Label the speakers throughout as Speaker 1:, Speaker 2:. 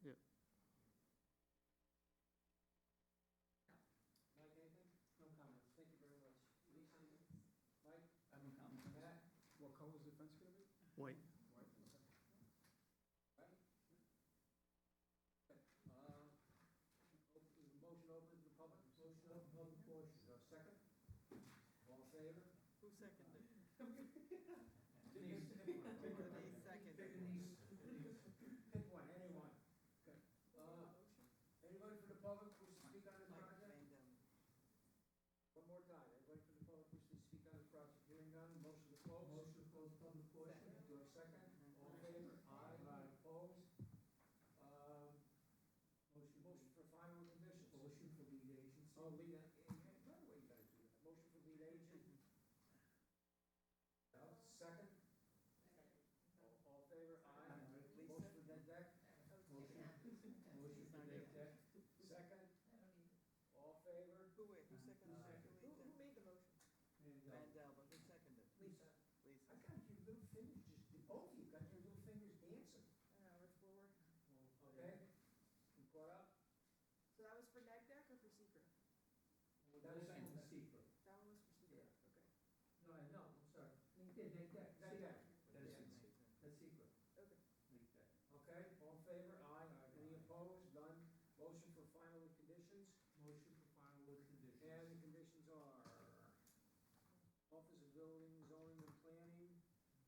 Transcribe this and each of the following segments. Speaker 1: Yeah.
Speaker 2: Mike, anything? No comments. Thank you very much. Lisa, anything? Mike,
Speaker 3: I have no comments.
Speaker 2: Matt? What color is the fence gonna be?
Speaker 1: White,
Speaker 2: White. Right? Okay, Um, op- is the motion open to the public? Motion open, public portion. Is there a second? All in favor?
Speaker 4: Who seconded?
Speaker 2: Denise. Pick one. Pick one.
Speaker 4: Denise seconded.
Speaker 2: Pick Denise. Denise. Pick one, anyone. Okay. Uh, Anybody from the public who wishes to speak on this
Speaker 4: Mike
Speaker 2: project?
Speaker 4: Random.
Speaker 2: One more time, anybody from the public wishing to speak on the project, hearing none, motion to close? Motion to close public
Speaker 4: portion.
Speaker 2: Do I have a second?
Speaker 4: Mhm.
Speaker 2: All in favor? Aye. Opposed? Um, Motion, motion for final conditions? Motion for lead agency. Oh, lead, a- eh, eh, by the way, you gotta do that, motion for lead agent, uh, second? All- All in favor? Aye.
Speaker 4: Lisa?
Speaker 2: Motion for neg deck?
Speaker 4: Motion for neg deck.
Speaker 2: Second? All in favor?
Speaker 4: Who, wait, who seconded?
Speaker 2: Who, who
Speaker 4: Random?
Speaker 2: made the motion? uh,
Speaker 4: Random, but who seconded?
Speaker 2: Lisa.
Speaker 4: Lisa.
Speaker 2: I got your little fingers, just, both of you got your little fingers dancing. Okay? You caught up?
Speaker 5: So that was for neg deck or for secret?
Speaker 2: That was
Speaker 3: Second.
Speaker 2: the secret.
Speaker 5: That one was for secret, okay,
Speaker 2: No, I know, I'm sorry. Yeah, that, that, that,
Speaker 3: That is secret.
Speaker 2: That's secret.
Speaker 5: okay.
Speaker 2: Okay, all in favor? Aye. Any opposed? None. Motion for final with conditions?
Speaker 3: Motion for final with
Speaker 2: And the conditions are Office of Building, Zoning and Planning,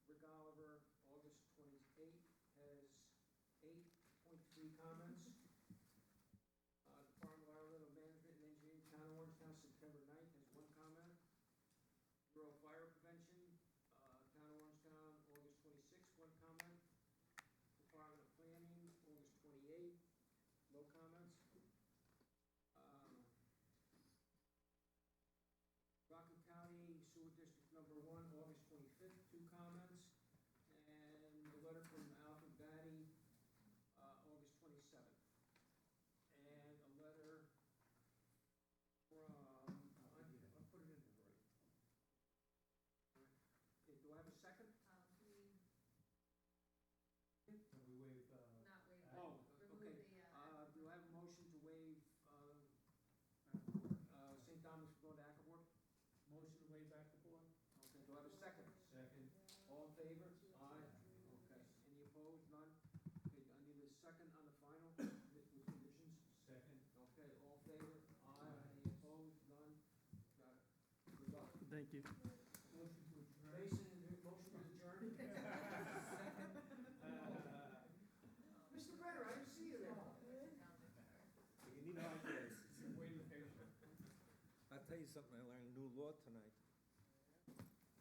Speaker 2: Rick Oliver, August twenty-eighth, has eight point three comments. Uh, Department of Environmental Management and Engineering, Town of Orange Town, September 9th has one comment. Bureau of Fire Prevention, uh, Town of Orange Town, August twenty-sixth, one comment. Department of Planning, August twenty-eighth, no comments. Um, Rockland County Sewer District Number One, August twenty-fifth, two comments, and the letter from Alvin Batty, uh, August twenty-seventh. And a letter from, I, I put it in there, right? Okay, do I have a second?
Speaker 6: Um, we
Speaker 3: Can we waive, uh,
Speaker 6: not waive,
Speaker 2: Oh, okay,
Speaker 6: remove the,
Speaker 2: uh,
Speaker 6: uh,
Speaker 2: do I have a motion to waive, uh, uh, St. Thomas from going to Acapulco? Motion to waive Acapulco? Okay, do I have a second?
Speaker 3: second?
Speaker 2: All in favor? Aye. Okay, any opposed, none? Okay, I need a second on the final with with conditions.
Speaker 3: Second.
Speaker 2: Okay, all in favor? Aye. Any opposed, none? Got it. Good luck.
Speaker 1: thank you.
Speaker 3: Motion
Speaker 2: Mason, motion to adjourn? Mr. Brenner, I didn't see you there.
Speaker 7: You need ideas.
Speaker 3: Waive patient.
Speaker 7: I'll tell you something, I learned new law tonight.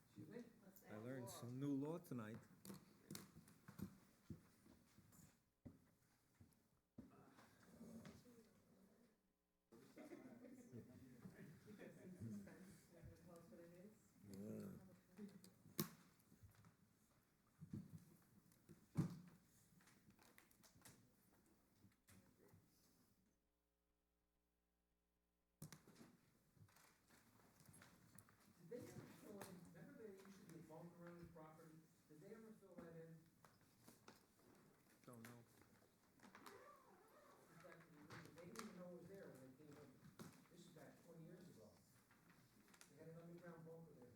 Speaker 2: Excuse me?
Speaker 6: Let's
Speaker 7: I
Speaker 6: say.
Speaker 7: learned some new law tonight. Yeah.
Speaker 2: Did they ever fill in, remember there used to be a bunk around the property? Did they ever fill that in?
Speaker 7: Don't know.
Speaker 2: In fact, They didn't even know it was there when they came in. This is back twenty years ago. They had an underground bunker there.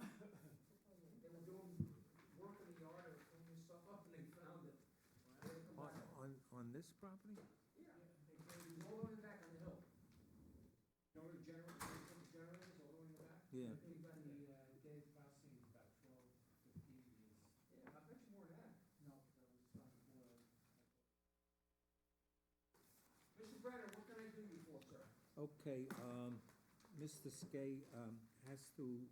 Speaker 2: They were doing work in the yard and cleaning stuff up and they found it. They had to come
Speaker 7: On,
Speaker 2: back.
Speaker 7: on, on this property?
Speaker 2: Yeah, they, they were all the way back on the hill. You know where the generator, the generator is all the way in the back?
Speaker 7: Yeah.
Speaker 2: Big by the, uh,
Speaker 3: Dave Fossey, about twelve, fifteen years.
Speaker 2: Yeah, I bet you more than that.
Speaker 3: No, that was not before.
Speaker 2: Mr. Brenner, what can I do you for, sir?
Speaker 7: Okay, um, Mr. Skay, um, has to